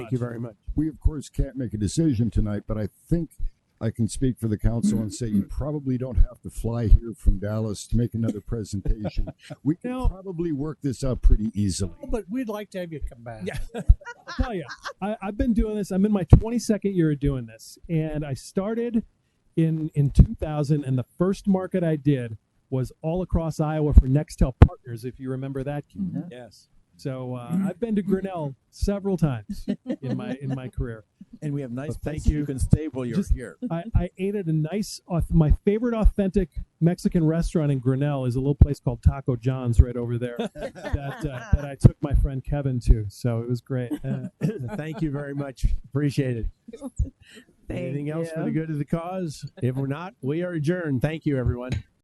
Thank you very much. We, of course, can't make a decision tonight, but I think I can speak for the council and say you probably don't have to fly here from Dallas to make another presentation. We can No. probably work this out pretty easily. But we'd like to have you come back. Yeah. I'll tell you, I, I've been doing this. I'm in my 22nd year of doing this, and I started in in 2000. And the first market I did was all across Iowa for Nextel Partners, if you remember that. Keith. Yes. So uh, I've been to Grinnell several times in my in my career. And we have nice But thank places you you. can stay while you're Just- here. I, I ate at a nice, auth- my favorite authentic Mexican restaurant in Grinnell is a little place called Taco John's right over there that, uh, that I took my friend Kevin to. So it was great. Uh, Thank you very much. Appreciate it. Thank Anything else for you. the good of the cause? If we're not, we are adjourned. Thank you, everyone.